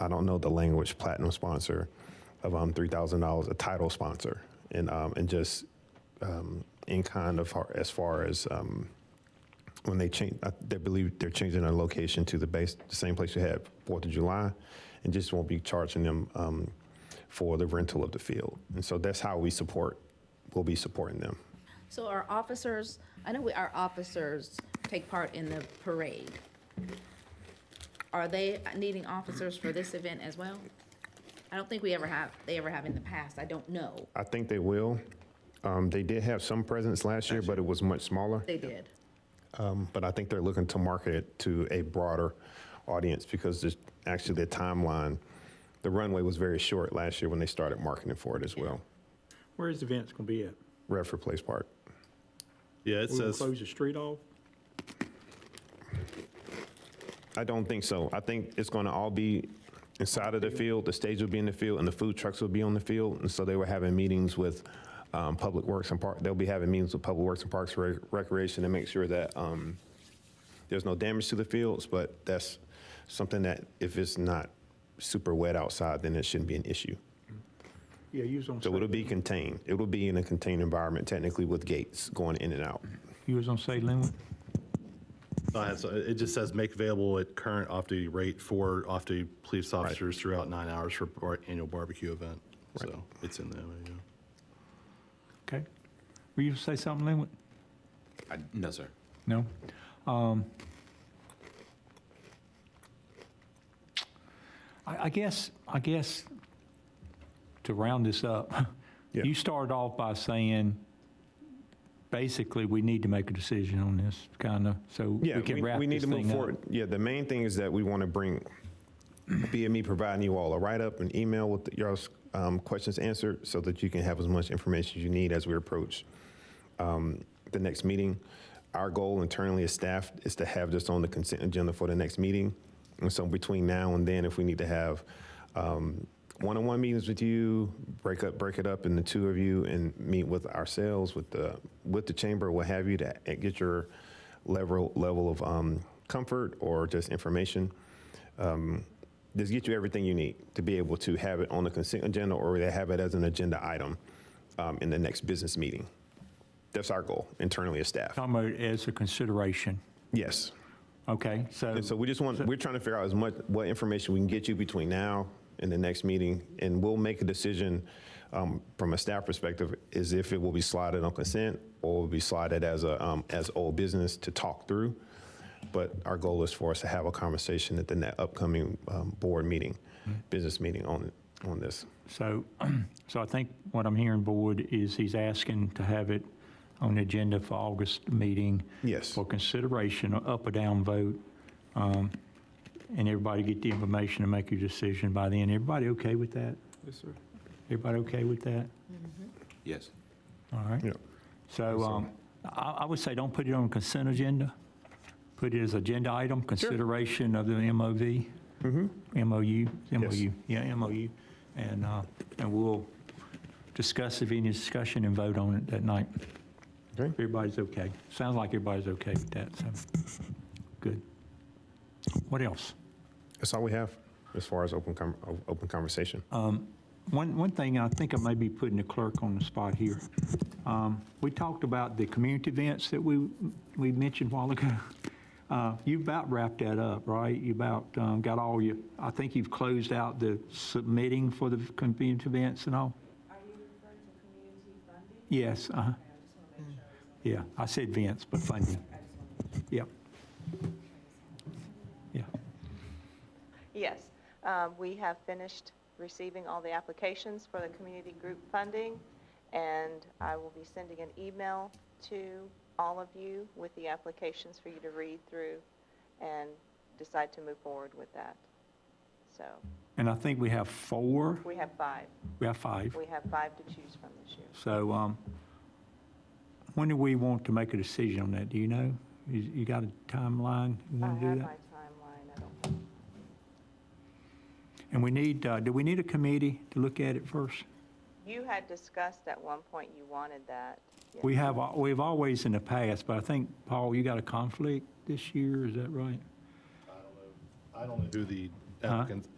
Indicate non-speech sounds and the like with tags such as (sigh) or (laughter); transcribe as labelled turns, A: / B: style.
A: I don't know the language, platinum sponsor of um, $3,000, a title sponsor, and, um, and just um, in kind of har- as far as um, when they change, I- they believe they're changing their location to the base, the same place you had Fourth of July, and just won't be charging them um, for the rental of the field. And so that's how we support, we'll be supporting them.
B: So our officers, I know we, our officers take part in the parade. Are they needing officers for this event as well? I don't think we ever have, they ever have in the past, I don't know.
A: I think they will. Um, They did have some presence last year, but it was much smaller.
B: They did.
A: But I think they're looking to market it to a broader audience because there's actually the timeline, the runway was very short last year when they started marketing for it as well.
C: Where is the event's gonna be at?
A: Redford Place Park.
D: Yeah, it
C: We gonna
D: says,
C: close the street off?
A: I don't think so. I think it's going to all be inside of the field. The stage will be in the field, and the food trucks will be on the field. And so they were having meetings with um, Public Works and Park. They'll be having meetings with Public Works and Parks Re- Recreation to make sure that um, there's no damage to the fields. But that's something that if it's not super wet outside, then it shouldn't be an issue.
C: Yeah, you was gonna say.
A: So it'll be contained. It will be in a contained environment, technically, with gates going in and out.
C: You was gonna say Linwood?
D: uh, so it just says make available at current off-duty rate for off-duty police officers throughout nine hours for our annual barbecue event. So it's in the MOU.
C: Okay. Were you gonna say something, Linwood?
E: I, no, sir.
C: No? Um, I, I guess, I guess, to round this up, (laughs)
A: Yeah.
C: you started off by saying, basically, we need to make a decision on this, kind of, so
A: Yeah,
C: we can wrap
A: need
C: this
A: to move
C: thing up.
A: forward. Yeah, the main thing is that we want to bring BME providing you all a write up, an email with your um, questions answered, so that you can have as much information as you need as we approach um, the next meeting. Our goal internally as staff is to have this on the consent agenda for the next meeting. And so between now and then, if we need to have um, one-on-one meetings with you, break up, break it up in the two of you and meet with ourselves, with the, with the chamber, what have you, to a- get your level, level of um, comfort or just information. Um, Just get you everything you need to be able to have it on the consent agenda or to have it as an agenda item um, in the next business meeting. That's our goal internally as staff.
C: Talking about it as a consideration,
A: Yes.
C: okay, so.
A: And so we just want, we're trying to figure out as much, what information we can get you between now and the next meeting. And we'll make a decision um, from a staff perspective, is if it will be slotted on consent or will be slotted as a, um, as old business to talk through. But our goal is for us to have a conversation at the ne- upcoming um, board meeting, business meeting on, on this.
C: So, (clears throat) so I think what I'm hearing, Board, is he's asking to have it on the agenda for August meeting
A: Yes.
C: for consideration, a up or down vote, um, and everybody get the information and make your decision by then. Everybody okay with that?
E: Yes, sir.
C: Everybody okay with that?
E: Yes.
C: All right.
A: Yeah.
C: So um, I I would say don't put it on consent agenda. Put it as agenda item, consideration of the MOV. MOU, MOU, yeah, MOU. And, uh, and we'll discuss if any discussion and vote on it that night.
A: Okay.
C: Everybody's okay. Sounds like everybody's okay with that, so, good. What else?
A: That's all we have as far as open, com- o- open conversation.
C: One, one thing, I think I may be putting the clerk on the spot here. Um, We talked about the community events that we, we mentioned a while ago. (laughs) Uh, You about wrapped that up, right? You about um, got all your, I think you've closed out the submitting for the community events and all? Are you referring to community funding? Yes, uh-huh. Yeah, I said events, but funding. Yep. Yeah,
F: Yes, um, we have finished receiving all the applications for the community group funding, and I will be sending an email to all of you with the applications for you to read through and decide to move forward with that. So,
C: and I think we have four,
F: we have five.
C: we have five.
F: We have five to choose from this year.
C: So um, when do we want to make a decision on that? Do you know? You you got a timeline? You
F: I
C: want to
F: have
C: do
F: my
C: that?
F: timeline, I don't have
C: And we need, uh, do we need a committee to look at it first?
F: You had discussed at one point you wanted that. Yes.
C: We have, al- we've always in the past, but I think, Paul, you got a conflict this year, is that right?
D: I don't know who the applicants,